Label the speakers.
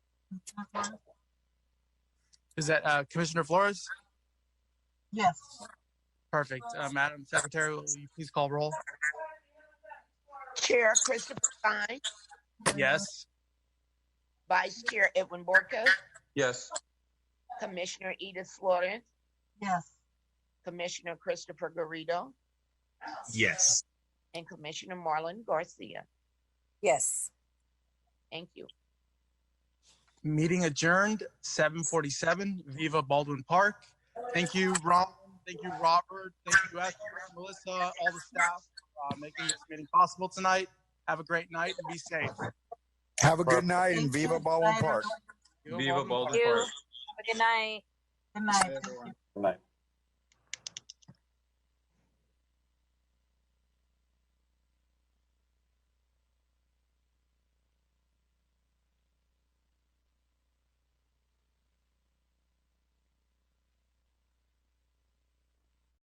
Speaker 1: Is that uh, Commissioner Flores?
Speaker 2: Yes.
Speaker 1: Perfect. Uh, Madam Secretary, will you please call roll?
Speaker 3: Chair Christopher Stein,
Speaker 1: Yes.
Speaker 3: Vice Chair Edwin Borco,
Speaker 4: Yes.
Speaker 3: Commissioner Edith Florence,
Speaker 2: Yes.
Speaker 3: Commissioner Christopher Garrido,
Speaker 5: Yes.
Speaker 3: and Commissioner Marlon Garcia.
Speaker 6: Yes.
Speaker 3: Thank you.
Speaker 1: Meeting adjourned, 747 Viva Baldwin Park. Thank you, Ron. Thank you, Robert. Thank you, Esther, Melissa, all the staff uh, making this meeting possible tonight. Have a great night and be safe.
Speaker 7: Have a good night and
Speaker 2: Thank you.
Speaker 7: Viva Baldwin
Speaker 2: Bye,
Speaker 7: Park.
Speaker 2: everyone.
Speaker 4: Viva Baldwin
Speaker 6: you.
Speaker 4: Park.
Speaker 6: Have a good night.
Speaker 2: Good night.
Speaker 4: Bye, everyone.
Speaker 2: Thank you.